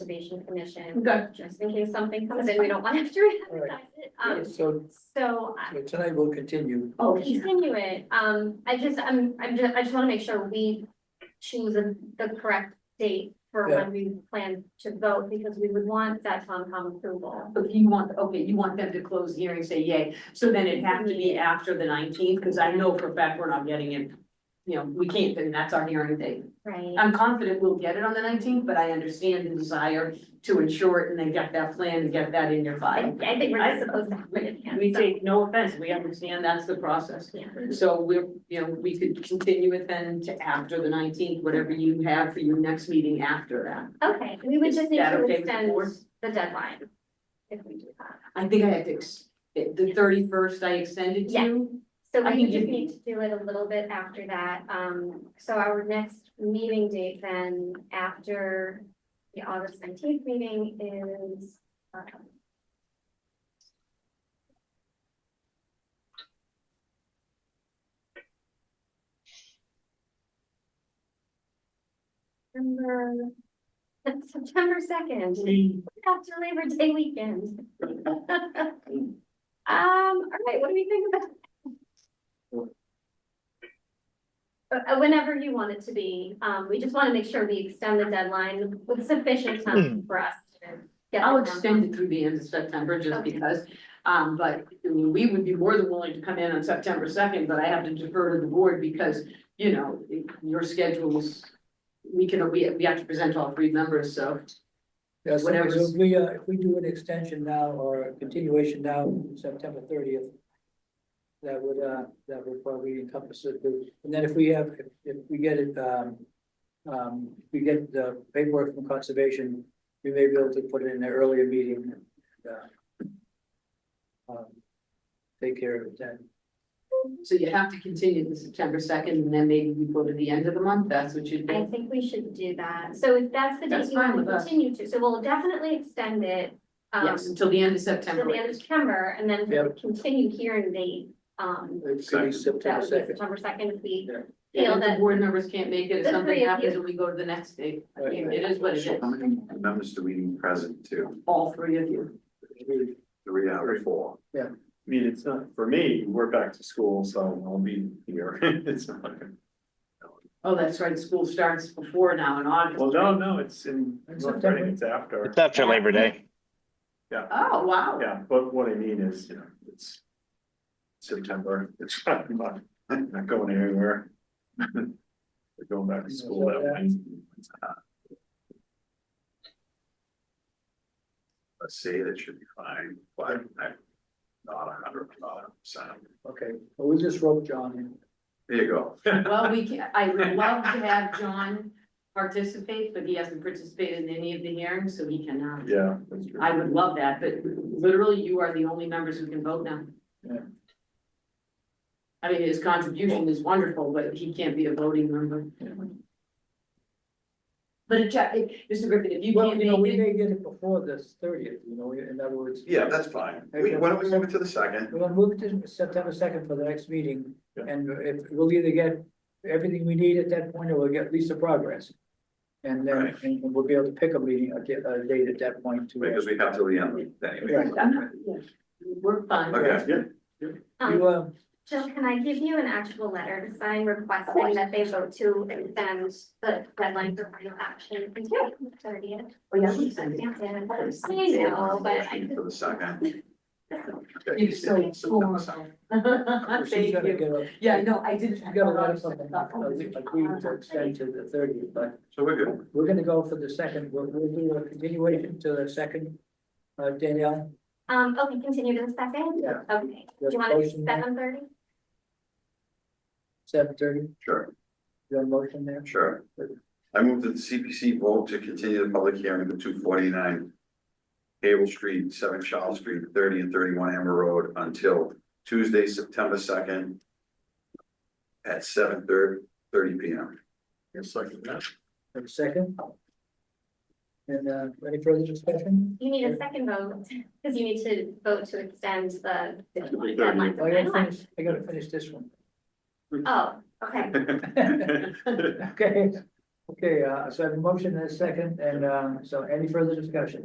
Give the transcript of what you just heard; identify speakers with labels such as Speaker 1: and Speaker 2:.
Speaker 1: Conservation Commission,
Speaker 2: Good.
Speaker 1: just in case something comes in, we don't want to have to re-advertise it. Um,
Speaker 3: So,
Speaker 1: so I-
Speaker 3: so tonight we'll continue.
Speaker 2: Oh,
Speaker 1: I'll continue it. Um, I just, I'm, I'm just, I just want to make sure we choose the the correct date for
Speaker 3: Yeah.
Speaker 1: when we plan to vote, because we would want that Concom approval.
Speaker 2: If you want, okay, you want them to close the hearing, say yay, so then it'd have to be after the nineteenth, because I know for a fact we're not getting it. You know, we can't, and that's our hearing date.
Speaker 1: Right.
Speaker 2: I'm confident we'll get it on the nineteenth, but I understand the desire to ensure it and then get that plan and get that in your
Speaker 1: I,
Speaker 2: file.
Speaker 1: I think we're just supposed to have it in hand.
Speaker 2: We
Speaker 1: so,
Speaker 2: take no offense, we understand that's the process.
Speaker 1: yeah.
Speaker 2: So we're, you know, we could continue it then to after the nineteenth, whatever you have for your next meeting after that.
Speaker 1: Okay, we would
Speaker 2: Is
Speaker 1: just need
Speaker 2: that
Speaker 1: to
Speaker 2: okay with the
Speaker 1: extend
Speaker 2: board?
Speaker 1: the deadline. If we do that.
Speaker 2: I think I had to, ex- eh, the thirty-first I extended
Speaker 1: Yeah.
Speaker 2: to.
Speaker 1: So we
Speaker 2: I think
Speaker 1: would just
Speaker 2: you-
Speaker 1: need to do it a little bit after that. Um, so our next meeting date then after the August nineteenth meeting is. um, September, September second. After Labor Day weekend. Um, all right, what do we think about? Uh, uh, whenever you want it to be, um, we just wanna make sure we extend the deadline with sufficient
Speaker 3: Hmm.
Speaker 1: time for us to get.
Speaker 2: I'll
Speaker 1: the form
Speaker 2: extend it through the end of September just
Speaker 1: Okay.
Speaker 2: because, um, but I mean, we would be more than willing to come in on September second, but I have to defer to the board because, you know, your schedules. We can, we, we have to present all three members, so
Speaker 3: Yeah, so- so
Speaker 2: Whatever's-
Speaker 3: if we, uh, if we do an extension now or a continuation now, September thirtieth. That would, uh, that would probably encompass it, and then if we have, if- if we get it, um. Um, if we get the paperwork from conservation, we may be able to put it in an earlier meeting, uh, um, Take care of it then.
Speaker 2: so you have to continue to September second and then maybe we go to the end of the month, that's what you
Speaker 1: I
Speaker 2: do.
Speaker 1: think we should do that, so if that's the date
Speaker 2: That's
Speaker 1: you
Speaker 2: fine
Speaker 1: wanna
Speaker 2: with us.
Speaker 1: continue to, so we'll definitely extend it. um,
Speaker 2: Yes, until the end of
Speaker 1: Till the end
Speaker 2: September.
Speaker 1: of September, and then
Speaker 3: Yep.
Speaker 1: continue hearing date, um,
Speaker 3: It could be
Speaker 1: that would
Speaker 3: September
Speaker 1: be
Speaker 3: second.
Speaker 1: September second, if we
Speaker 3: Yeah.
Speaker 1: feel
Speaker 2: And if the
Speaker 1: that.
Speaker 2: board members can't make it, if
Speaker 1: The
Speaker 2: something
Speaker 1: three of
Speaker 2: happens
Speaker 1: you.
Speaker 2: and we go to the next date, I mean,
Speaker 3: Right.
Speaker 2: it is what it
Speaker 4: So
Speaker 2: is,
Speaker 4: how many members do we need present to?
Speaker 2: all three of you.
Speaker 4: Three out of four.
Speaker 5: I mean, it's not, for me, we're back to school, so I'll be here. It's not,
Speaker 2: Oh, that's right, school starts before now in August.
Speaker 5: well, no, no, it's in,
Speaker 3: It's
Speaker 5: North
Speaker 3: September.
Speaker 5: Reading, it's after.
Speaker 6: It's after Labor Day.
Speaker 2: Oh, wow.
Speaker 5: Yeah, but what I mean is, you know, it's September, it's not, not not going anywhere. They're going back to school that way.
Speaker 4: Let's say that should be fine, but I'm not a hundred, not a percent.
Speaker 3: Okay, well, we just wrote John in.
Speaker 4: There you go.
Speaker 2: Well, we can, I would love to have John participate, but he hasn't participated in any of the hearings, so he cannot.
Speaker 5: Yeah. that's true.
Speaker 2: I would love that, but literally you are the only members who can vote now.
Speaker 3: Yeah.
Speaker 2: I mean, his contribution is wonderful, but he can't be a voting member. But it, ja- it- Mr. Griffin, if you
Speaker 3: Well,
Speaker 2: can't
Speaker 3: you know, we
Speaker 2: make it,
Speaker 3: may get it before this thirtieth, you know, in other words.
Speaker 4: Yeah, that's fine. We, why don't we move it to the second?
Speaker 3: We're gonna move it to September second for the next meeting,
Speaker 5: Yeah.
Speaker 3: and if, we'll either get everything we need at that point, or we'll get at least the progress. And then,
Speaker 4: Right.
Speaker 3: and we'll be able to pick a meeting, a da- a date at that point to. uh,
Speaker 4: Because we have till the end anyway.
Speaker 3: Right.
Speaker 2: I'm not, yeah, we're fine.
Speaker 4: Okay.
Speaker 5: Yeah,
Speaker 1: um,
Speaker 3: You, uh,
Speaker 1: Jill, can I give you an actual letter to sign
Speaker 2: Of
Speaker 1: requesting
Speaker 2: course.
Speaker 1: that they vote to extend the deadline for final action until the thirtieth?
Speaker 2: Oh, yeah, we signed it.
Speaker 1: I know, but I
Speaker 4: For the second. Okay.
Speaker 2: You're so
Speaker 4: September second.
Speaker 3: she's
Speaker 2: Thank
Speaker 3: gotta
Speaker 2: you.
Speaker 3: get a,
Speaker 2: Yeah, no, I did.
Speaker 3: she's got a lot of something, agreed to extend to the thirtieth, but
Speaker 4: So we're good.
Speaker 3: we're gonna go for the second, we'll, we'll do a continuation to the second. Uh, Danielle,
Speaker 1: Um, okay, continue to the second?
Speaker 3: Yeah.
Speaker 1: Okay, do
Speaker 3: Just
Speaker 1: you want to
Speaker 3: motion that.
Speaker 1: seven thirty?
Speaker 3: seven thirty,
Speaker 4: Sure,
Speaker 3: your motion there?
Speaker 4: sure. I move that the CPC vote to continue the public hearing for two forty-nine Cable Street, Seven Charles Street, thirty and thirty-one Amber Road until Tuesday, September second at seven thirty, thirty P M.
Speaker 5: it's like that.
Speaker 3: Have a second? And, uh, any further discussion?
Speaker 1: You need a second vote, because you need to vote to extend the the
Speaker 4: Thirty.
Speaker 1: deadline
Speaker 3: Oh,
Speaker 1: for
Speaker 3: I gotta
Speaker 1: final
Speaker 3: finish,
Speaker 1: action.
Speaker 3: I gotta finish this one.
Speaker 1: Oh, okay,
Speaker 3: Okay, Okay, uh, so I have a motion and a second, and, um, so any further discussion?